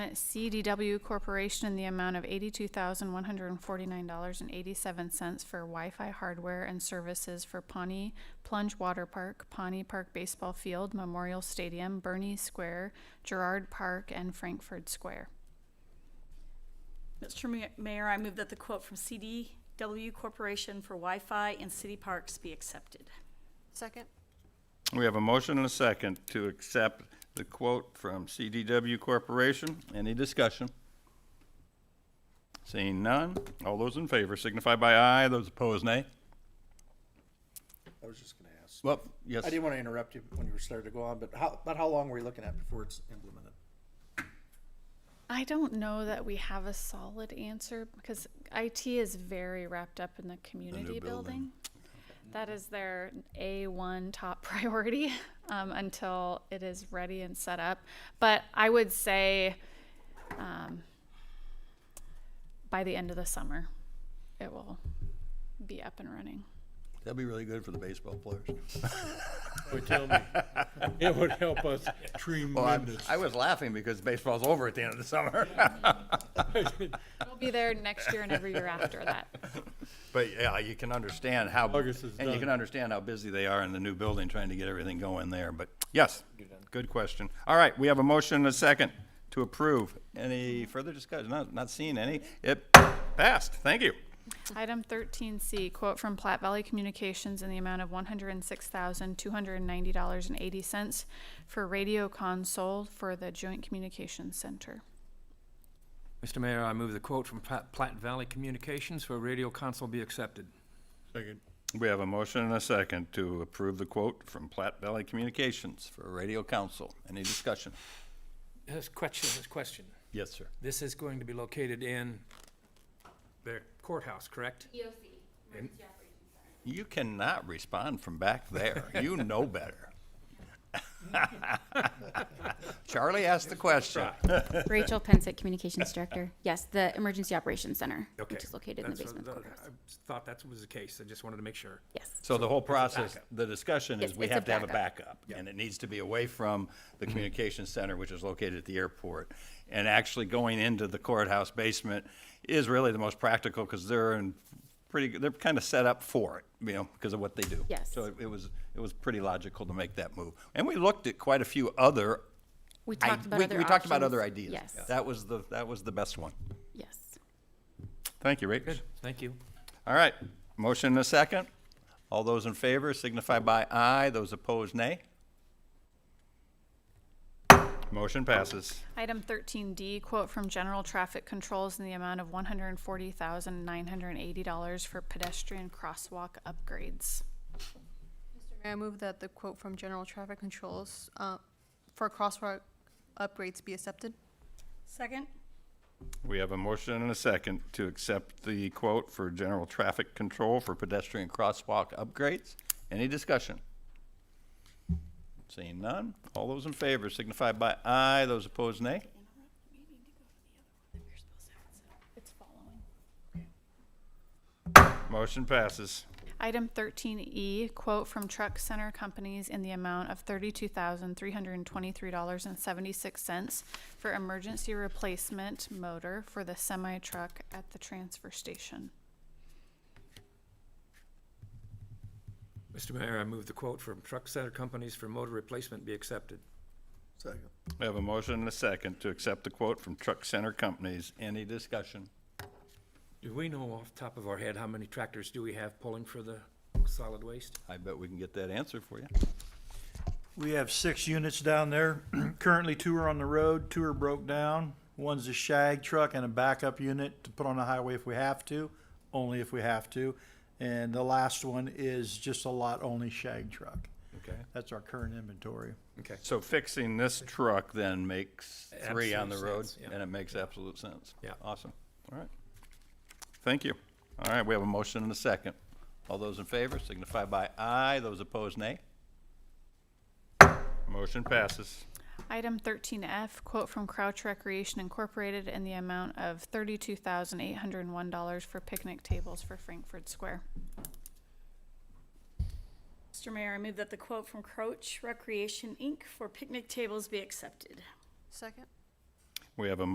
CDW Corporation in the amount of eighty-two thousand, one hundred and forty-nine dollars and eighty-seven cents for Wi-Fi hardware and services for Pawnee Plunge Water Park, Pawnee Park Baseball Field, Memorial Stadium, Bernie Square, Gerard Park, and Frankfurt Square. Mr. Ma- Mayor, I move that the quote from CDW Corporation for Wi-Fi in city parks be accepted. Second? We have a motion and a second to accept the quote from CDW Corporation. Any discussion? Seeing none, all those in favor signify by aye, those opposed nay. I was just gonna ask. Well, I yes, didn't want to interrupt you when you were starting to go on, but how, about how long were you looking at before it's implemented? I don't know that we have a solid answer because IT is very wrapped up in the community building. That is their A1 top priority um, until it is ready and set up. But I would say um, by the end of the summer, it will be up and running. that'd be really good for the baseball players. Boy, tell me. It would help us tremendous. I was laughing because baseball's over at the end of the summer. It'll be there next year and every year after that. But yeah, you can understand how, August is and you done. can understand how busy they are in the new building trying to get everything going there, but yes, good question. All right, we have a motion and a second to approve. Any further discussion? Not, not seeing any. It passed. Thank you. Item thirteen C, quote from Platte Valley Communications in the amount of one hundred and six thousand, two hundred and ninety dollars and eighty cents for radio console for the Joint Communications Center. Mr. Mayor, I move the quote from Plat- Platte Valley Communications for a radio console be accepted. Second. We have a motion and a second to approve the quote from Platte Valley Communications for Radio Council. Any discussion? This question, this question. Yes, sir. This is going to be located in the courthouse, correct? You cannot respond from back there. You know better. Charlie asked the question. Rachel Pensick, Communications Director. Yes, the Emergency Operations Center, Okay. which is located in the That's what- basement that- courthouse. I Thought that was the case. I just wanted to make sure. Yes, So the whole process, the discussion is Yes, we it's a have to have a backup, and it needs to be away from the communications center, which is located at the airport. And actually going into the courthouse basement is really the most practical, because they're in pretty, they're kind of set up for it, you know, because of what they do. Yes. So it- it was, it was pretty logical to make that move. And we looked at quite a few other. we i- talked about we- other We talked about options. other ideas. Yes, That was the, that was the best one. yes. Thank you, Rachel. Good, thank you. All right, motion and a second. All those in favor signify by aye, those opposed nay. Motion passes. Item thirteen D, quote from General Traffic Controls in the amount of one hundred and forty thousand, nine hundred and eighty dollars for pedestrian crosswalk upgrades. Mr. Mayor, I move that the quote from General Traffic Controls uh, for crosswalk upgrades be accepted. Second? We have a motion and a second to accept the quote for general traffic control for pedestrian crosswalk upgrades. Any discussion? Seeing none, all those in favor signify by aye, those opposed nay. It's following. Motion passes. Item thirteen E, quote from Truck Center Companies in the amount of thirty-two thousand, three hundred and twenty-three dollars and seventy-six cents for emergency replacement motor for the semi-truck at the transfer station. Mr. Mayor, I move the quote from Truck Center Companies for motor replacement be accepted. Second. We have a motion and a second to accept the quote from Truck Center Companies. Any discussion? Do we know off the top of our head how many tractors do we have pulling for the solid waste? I bet we can get that answer for you. We have six units down there. Currently, two are on the road, two are broke down. One's a shag truck and a backup unit to put on the highway if we have to, only if we have to. And the last one is just a lot only shag truck. Okay. That's our current inventory. Okay. So fixing this truck then makes three on the Absolute road, sense, yeah. and it makes absolute sense. Yeah. Awesome. All right. Thank you. All right, we have a motion and a second. All those in favor signify by aye. Those opposed, nay. Motion passes. Item thirteen F, quote from Crouch Recreation Incorporated in the amount of thirty-two thousand, eight hundred and one dollars for picnic tables for Frankfurt Square. Mr. Mayor, I move that the quote from Croach Recreation, Inc. for picnic tables be accepted. Second? We have a